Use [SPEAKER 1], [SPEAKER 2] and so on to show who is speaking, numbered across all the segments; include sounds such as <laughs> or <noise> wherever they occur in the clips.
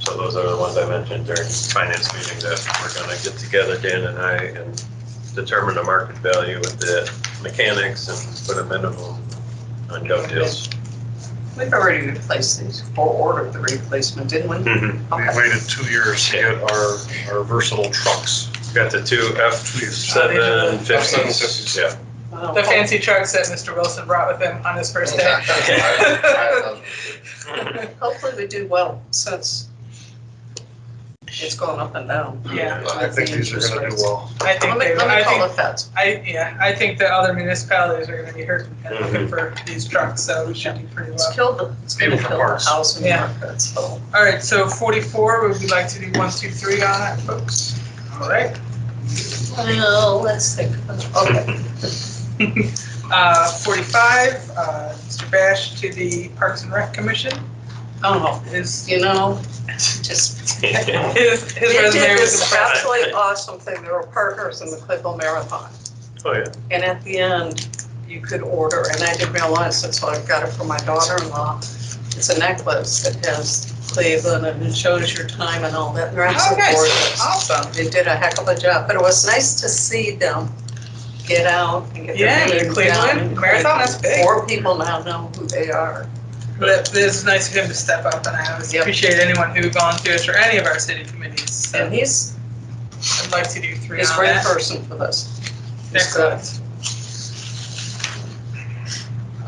[SPEAKER 1] So those are the ones I mentioned during finance meeting that we're gonna get together, Dan and I, and determine the market value with the mechanics and put a minimum on dovetails.
[SPEAKER 2] We've already replaced these, or ordered the replacement, didn't we?
[SPEAKER 1] We've
[SPEAKER 2] Okay.
[SPEAKER 3] We waited two years to get our, our versatile trucks.
[SPEAKER 1] Got the two F seven
[SPEAKER 4] <laughs>
[SPEAKER 1] fifties. Yeah.
[SPEAKER 2] Well,
[SPEAKER 5] The fancy trucks that Mr. Wilson brought with him on his first day.
[SPEAKER 1] Oh,
[SPEAKER 2] Hopefully we do well since it's going up and down.
[SPEAKER 5] <laughs> Yeah,
[SPEAKER 3] I think these are gonna do well.
[SPEAKER 5] I think,
[SPEAKER 2] Let me,
[SPEAKER 5] they-
[SPEAKER 2] let me
[SPEAKER 5] I
[SPEAKER 2] call
[SPEAKER 5] think,
[SPEAKER 2] the feds.
[SPEAKER 5] I, yeah, I think the other municipalities are gonna be hurt competitive for these trucks, so we should do pretty
[SPEAKER 2] It's
[SPEAKER 5] well.
[SPEAKER 2] killed the, it's gonna
[SPEAKER 3] People from
[SPEAKER 2] kill the
[SPEAKER 3] Mars.
[SPEAKER 2] housing
[SPEAKER 5] Yeah.
[SPEAKER 2] market, so.
[SPEAKER 5] All right, so forty-four, would we like to do one, two, three on that, folks? All right. <laughs>
[SPEAKER 2] Well, let's think, okay.
[SPEAKER 5] Uh, 45, uh, Mr. Bash to the Parks and Rec Commission
[SPEAKER 2] Oh,
[SPEAKER 5] is,
[SPEAKER 2] you know, just.
[SPEAKER 5] his,
[SPEAKER 2] They
[SPEAKER 5] his
[SPEAKER 2] did
[SPEAKER 5] resume was
[SPEAKER 2] this
[SPEAKER 5] impressive.
[SPEAKER 2] absolutely awesome thing. They were partners in the Clayville Marathon.
[SPEAKER 1] Oh, yeah.
[SPEAKER 2] And at the end, you could order, and I didn't realize this, so I got it for my daughter-in-law. It's a necklace that has Cleveland and it shows your time and all that. They're
[SPEAKER 5] Oh,
[SPEAKER 2] absolutely
[SPEAKER 5] nice,
[SPEAKER 2] gorgeous.
[SPEAKER 5] awesome.
[SPEAKER 2] They did a heck of a job, but it was nice to see them get out and get
[SPEAKER 5] Yeah,
[SPEAKER 2] their
[SPEAKER 5] the
[SPEAKER 2] name down.
[SPEAKER 5] Cleveland
[SPEAKER 2] in
[SPEAKER 5] Marathon, that's
[SPEAKER 2] Cleveland.
[SPEAKER 5] big.
[SPEAKER 2] More people now know who they are.
[SPEAKER 5] That, this is nice of him to step up, and I always
[SPEAKER 2] Yep.
[SPEAKER 5] appreciate anyone who volunteers for any of our city committees. So
[SPEAKER 2] And he's,
[SPEAKER 5] I'd like to do three
[SPEAKER 2] he's a
[SPEAKER 5] on
[SPEAKER 2] great
[SPEAKER 5] that.
[SPEAKER 2] person for uh, this. He's good.
[SPEAKER 5] Excellent.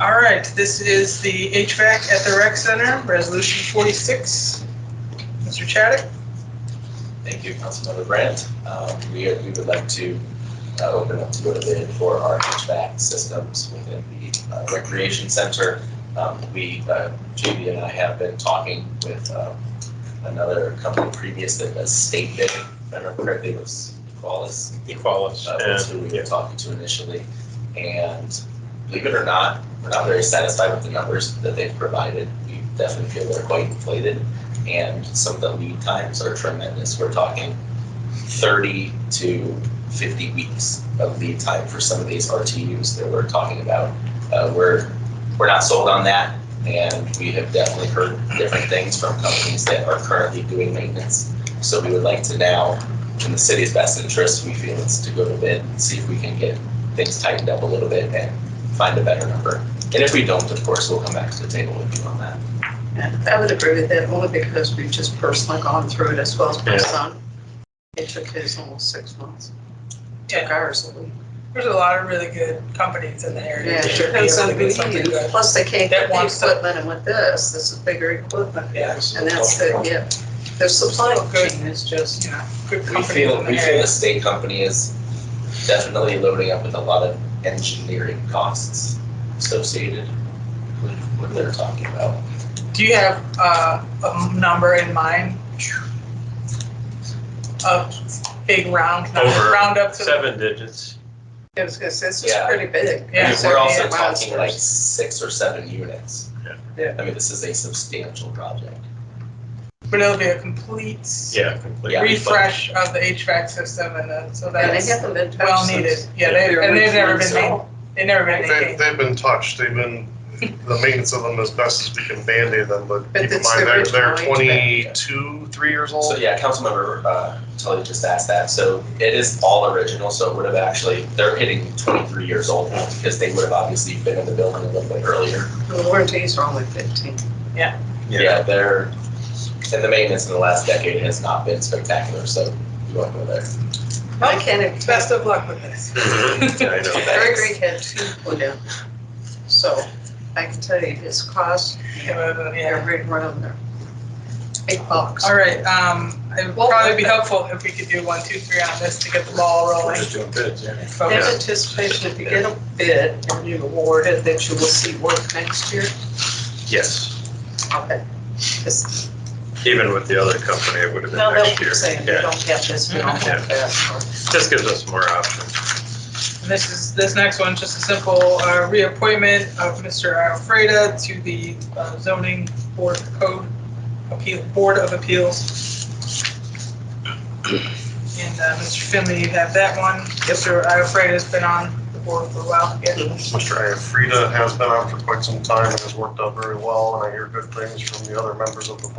[SPEAKER 5] All right, this is the HVAC at the rec center, resolution 46. Mr. Chaddick?
[SPEAKER 4] Thank you, Councilmember Brandt. Um, We are- we would like to uh, open up to go to bid for our HVAC systems within the uh, recreation center. Um, We, uh, JB and I have been talking with um, another company previous that does state bidding. If I remember correctly, it was Qualis
[SPEAKER 1] Equalis
[SPEAKER 4] uh, that's who we
[SPEAKER 1] and, yeah.
[SPEAKER 4] were talking to initially. And believe it or not, we're not very satisfied with the numbers that they've provided. We definitely feel they're quite inflated. And some of the lead times are tremendous. We're talking thirty to fifty weeks of lead time for some of these RTUs that we're talking about. Uh, we're, we're not sold on that. And we have definitely heard different things from companies that are currently doing maintenance. So we would like to now in the city's best interest, we feel it's to go to bid, and see if we can get things tightened up a little bit and find a better number. And if we don't, of course, we'll come back to the table with you on that.
[SPEAKER 2] I would agree with that only because we've just personally gone through it as well as my
[SPEAKER 1] Yeah.
[SPEAKER 2] son. It took his almost six months. Took ours a week.
[SPEAKER 5] There's a lot of really good companies in the area.
[SPEAKER 2] Yeah,
[SPEAKER 5] that
[SPEAKER 2] sure.
[SPEAKER 5] should be able to do something good.
[SPEAKER 2] Plus they can't
[SPEAKER 5] That
[SPEAKER 2] get the
[SPEAKER 5] wants to-
[SPEAKER 2] equipment and with this, this is bigger equipment.
[SPEAKER 5] Yeah.
[SPEAKER 2] And that's the, yeah, the supply
[SPEAKER 5] Good.
[SPEAKER 2] chain is just,
[SPEAKER 5] You know, good
[SPEAKER 4] We
[SPEAKER 5] companies
[SPEAKER 4] feel,
[SPEAKER 5] in
[SPEAKER 4] we
[SPEAKER 5] the
[SPEAKER 4] feel the
[SPEAKER 5] area.
[SPEAKER 4] state company is definitely loading up with a lot of engineering costs associated with what they're talking about.
[SPEAKER 5] Do you have uh, a number in mind? A big round, number,
[SPEAKER 1] Over
[SPEAKER 5] round up to.
[SPEAKER 1] Seven digits.
[SPEAKER 2] I was gonna say, this is
[SPEAKER 4] Yeah.
[SPEAKER 2] pretty big.
[SPEAKER 5] Yeah.
[SPEAKER 4] And We're also
[SPEAKER 2] Yeah.
[SPEAKER 4] talking like six or seven units.
[SPEAKER 1] Yeah.
[SPEAKER 5] Yeah.
[SPEAKER 4] I mean, this is a substantial project.
[SPEAKER 5] But it'll be a complete
[SPEAKER 1] Yeah, completely.
[SPEAKER 4] Yeah.
[SPEAKER 5] refresh of the HVAC system and then, so
[SPEAKER 2] And they
[SPEAKER 5] that's
[SPEAKER 2] haven't been touched
[SPEAKER 5] well
[SPEAKER 2] since
[SPEAKER 5] needed. Yeah, they,
[SPEAKER 2] their
[SPEAKER 5] and they've never been,
[SPEAKER 2] original
[SPEAKER 5] made-
[SPEAKER 2] install.
[SPEAKER 5] they've never been
[SPEAKER 3] They,
[SPEAKER 5] maintained.
[SPEAKER 3] they've been touched, they've been, the maintenance of them as best as we can band-aid them, but
[SPEAKER 2] But
[SPEAKER 3] keep in
[SPEAKER 2] it's the
[SPEAKER 3] mind, they're, they're
[SPEAKER 2] original
[SPEAKER 4] HVAC.
[SPEAKER 3] twenty-two, three years old.
[SPEAKER 4] So yeah, Councilmember uh, Tully just asked that. So it is all original, so it would have actually, they're hitting 23 years old now because they would have obviously been in the building a little bit earlier.
[SPEAKER 2] The warranties are only fifteen.
[SPEAKER 1] Yeah. <laughs>
[SPEAKER 4] Yeah, they're, and the maintenance in the last decade has not been spectacular, so you won't go there.
[SPEAKER 2] I can't even.
[SPEAKER 5] Best of luck with this.
[SPEAKER 1] Mhm. I know.
[SPEAKER 2] Gregory had two put in, so I can tell you his cost,
[SPEAKER 5] Yeah.
[SPEAKER 2] they're right around there. Big box.
[SPEAKER 5] All right, um, it would
[SPEAKER 2] Well,
[SPEAKER 5] probably be helpful if we could do one, two, three on this to get the ball
[SPEAKER 4] <laughs>
[SPEAKER 1] We're
[SPEAKER 5] rolling.
[SPEAKER 1] just doing bids, yeah.
[SPEAKER 2] There's
[SPEAKER 5] Focus.
[SPEAKER 2] anticipation, if you get a bid and you award it, that you will see work next year.
[SPEAKER 1] Yes,
[SPEAKER 2] Okay. Because
[SPEAKER 1] even with the other company, it would have been
[SPEAKER 2] now they'll
[SPEAKER 1] next year.
[SPEAKER 2] keep saying, we
[SPEAKER 1] Yeah,
[SPEAKER 2] don't have this, we don't have that.
[SPEAKER 1] just gives us more options.
[SPEAKER 5] And This is, this next one, just a simple uh, reappointment of Mr. Alfreda to the uh, zoning board of code appeal, board of appeals. And uh, Mr. Finley, you have that one. Mr. Alfreda's been on the board for a while. Yeah.
[SPEAKER 3] Mr. Ayafrida has been on for quite some time and has worked out very well, and I hear good things from the other members of the board.